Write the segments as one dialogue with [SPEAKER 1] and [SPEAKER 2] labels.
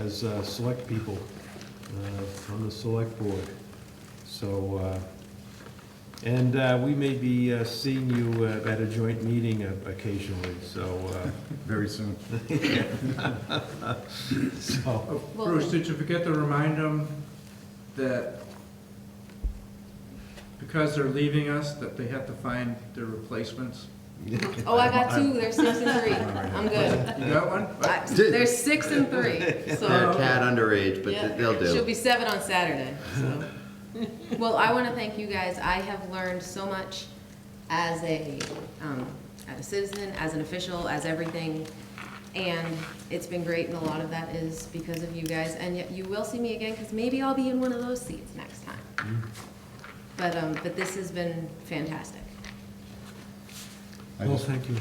[SPEAKER 1] as uh, select people uh, on the select board. So, uh, and uh, we may be uh, seeing you uh, at a joint meeting occasionally, so,
[SPEAKER 2] Very soon.
[SPEAKER 1] uh, so,
[SPEAKER 3] Oh,
[SPEAKER 4] Well-
[SPEAKER 3] Bruce, did you forget to remind them that because they're leaving us, that they have to find their replacements?
[SPEAKER 4] Oh, I got two, they're six and three, I'm good.
[SPEAKER 3] You got one?
[SPEAKER 4] I- They're six and three,
[SPEAKER 5] They're a
[SPEAKER 4] so.
[SPEAKER 5] tad underage, but
[SPEAKER 4] yeah.
[SPEAKER 5] th- they'll
[SPEAKER 4] She'll
[SPEAKER 5] do.
[SPEAKER 4] be seven on Saturday, so. Well, I want to thank you guys, I have learned so much as a, um, as a citizen, as an official, as everything. And it's been great, and a lot of that is because of you guys, and yet you will see me again, because maybe I'll be in one of those seats next
[SPEAKER 5] Mm-hmm.
[SPEAKER 4] time. But, um, but this has been fantastic.
[SPEAKER 2] I
[SPEAKER 1] well,
[SPEAKER 2] just,
[SPEAKER 1] thank you.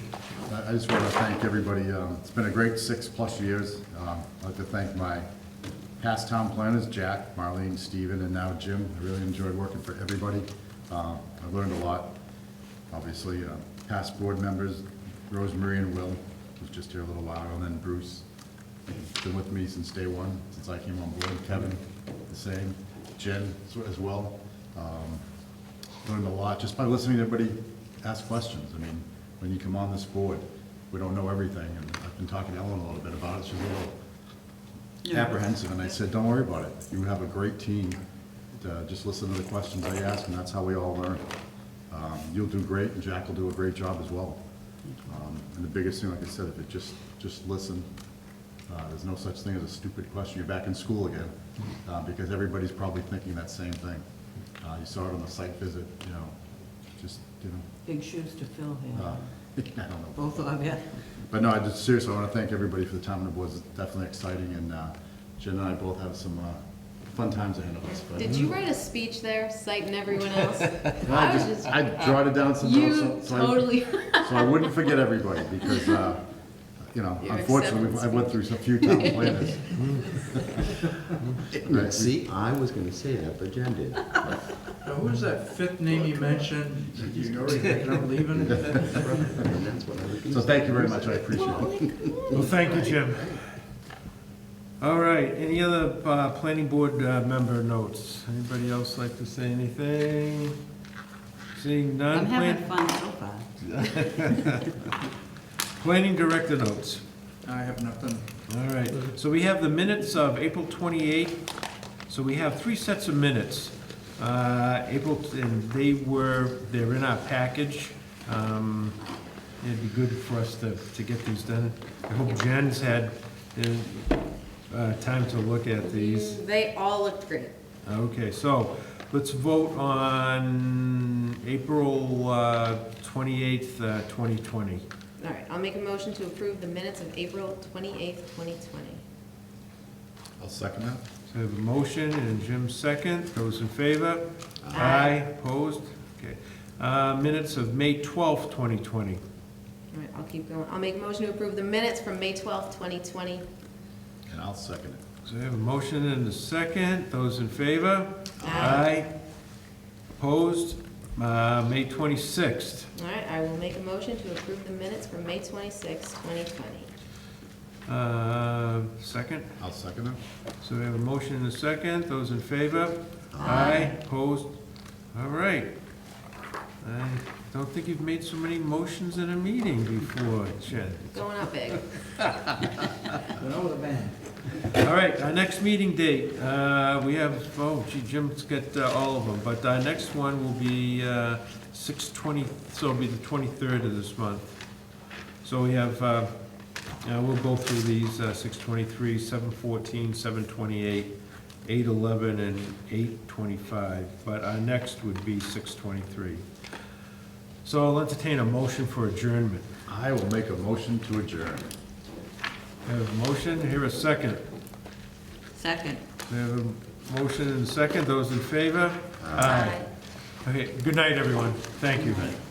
[SPEAKER 2] I I just want to thank everybody. um, It's been a great six-plus years. Um, I'd like to thank my past town planners, Jack, Marlene, Steven, and now Jim. I really enjoyed working for everybody. Um, I've learned a lot. Obviously, uh, past board members, Rosemary and Will, was just here a little while, and then Bruce. He's Been with me since day one, since I came on board. Kevin, the same. Jen as- as well. Um, learned a lot just by listening to everybody ask questions. I mean, when you come on this board, we don't know everything, and I've been talking to Ellen a little bit about it, she's a little apprehensive, and I said, don't worry about it, you have a great team. Uh, Just listen to the questions I ask, and that's how we all learn. Um, You'll do great, and Jack will do a great job as well. Um, And the biggest thing, like I said, if it just, just listen, Uh, there's no such thing as a stupid question, you're back in school again, uh, because everybody's probably thinking that same thing. Uh, You saw it on the site visit, you know, just, you know,
[SPEAKER 6] Big shoes to fill
[SPEAKER 2] uh,
[SPEAKER 6] here,
[SPEAKER 2] I don't know.
[SPEAKER 6] both of you.
[SPEAKER 2] But no, I just seriously, I want to thank everybody for the time and it was definitely exciting, and uh, Jen and I both have some uh, fun times ahead of us. but-
[SPEAKER 4] Did
[SPEAKER 5] mm-hmm.
[SPEAKER 4] you write a speech there, citing everyone else?
[SPEAKER 2] No, I
[SPEAKER 4] was
[SPEAKER 2] just, I jotted down some notes.
[SPEAKER 4] You
[SPEAKER 2] so- so I-
[SPEAKER 4] totally,
[SPEAKER 2] So I wouldn't forget everybody, because, uh, you know,
[SPEAKER 4] Your
[SPEAKER 2] unfortunately, we've- I went through a few town planners. Right.
[SPEAKER 5] See, I was gonna say that, but Jen did.
[SPEAKER 3] Now, who was that fifth name you mentioned? You already thinking I'm leaving?
[SPEAKER 5] And that's what I was
[SPEAKER 2] So
[SPEAKER 5] gonna
[SPEAKER 2] thank you very much, I appreciate it.
[SPEAKER 1] Well, thank you, Jim. All right, any other uh, planning board uh, member notes? Anybody else like to say anything? Seeing none?
[SPEAKER 6] I'm
[SPEAKER 1] plan-
[SPEAKER 6] having fun so far.
[SPEAKER 1] Planning director notes.
[SPEAKER 3] I have nothing.
[SPEAKER 1] All right, so we have the minutes of April 28th. So we have three sets of minutes. Uh, April, and they were, they're in our package. Um, It'd be good for us to, to get these done. I hope Jen's had uh, uh, time to look at these.
[SPEAKER 4] they all looked great.
[SPEAKER 1] Okay, so let's vote on April uh, 28th, uh, 2020.
[SPEAKER 4] All right, I'll make a motion to approve the minutes of April twenty-eighth, twenty twenty.
[SPEAKER 2] I'll second that.
[SPEAKER 1] So I have a motion and Jim second. Those in favor?
[SPEAKER 4] Aye.
[SPEAKER 1] Opposed? Okay. Uh, Minutes of May 12th, 2020.
[SPEAKER 4] All right, I'll keep going. I'll make a motion to approve the minutes from May twelfth, twenty twenty.
[SPEAKER 2] And I'll second it.
[SPEAKER 1] So I have a motion and a second. Those in favor?
[SPEAKER 4] Aye.
[SPEAKER 1] Opposed? Uh, May 26th.
[SPEAKER 4] All right, I will make a motion to approve the minutes from May twenty-sixth, twenty twenty.
[SPEAKER 1] Uh, Second?
[SPEAKER 2] I'll second it.
[SPEAKER 1] So we have a motion and a second. Those in favor? Aye. Opposed? All right. I don't think you've made so many motions in a meeting before, Jen.
[SPEAKER 4] Going up big.
[SPEAKER 1] All right, our next meeting date, uh, we have, oh gee, Jim's got uh, all of them, but our next one will be uh, 6/20, so it'll be the 23rd of this month. So we have, uh, uh, we'll go through these, uh, 6/23, 7/14, 7/28, 8/11, and 8/25, but our next would be 6/23. So I'll entertain a motion for adjournment.
[SPEAKER 2] I will make a motion to adjourn.
[SPEAKER 1] I Have a motion, here a second.
[SPEAKER 6] Second.
[SPEAKER 1] We have a motion and a second. Those in favor? Okay, good night, everyone. Thank you.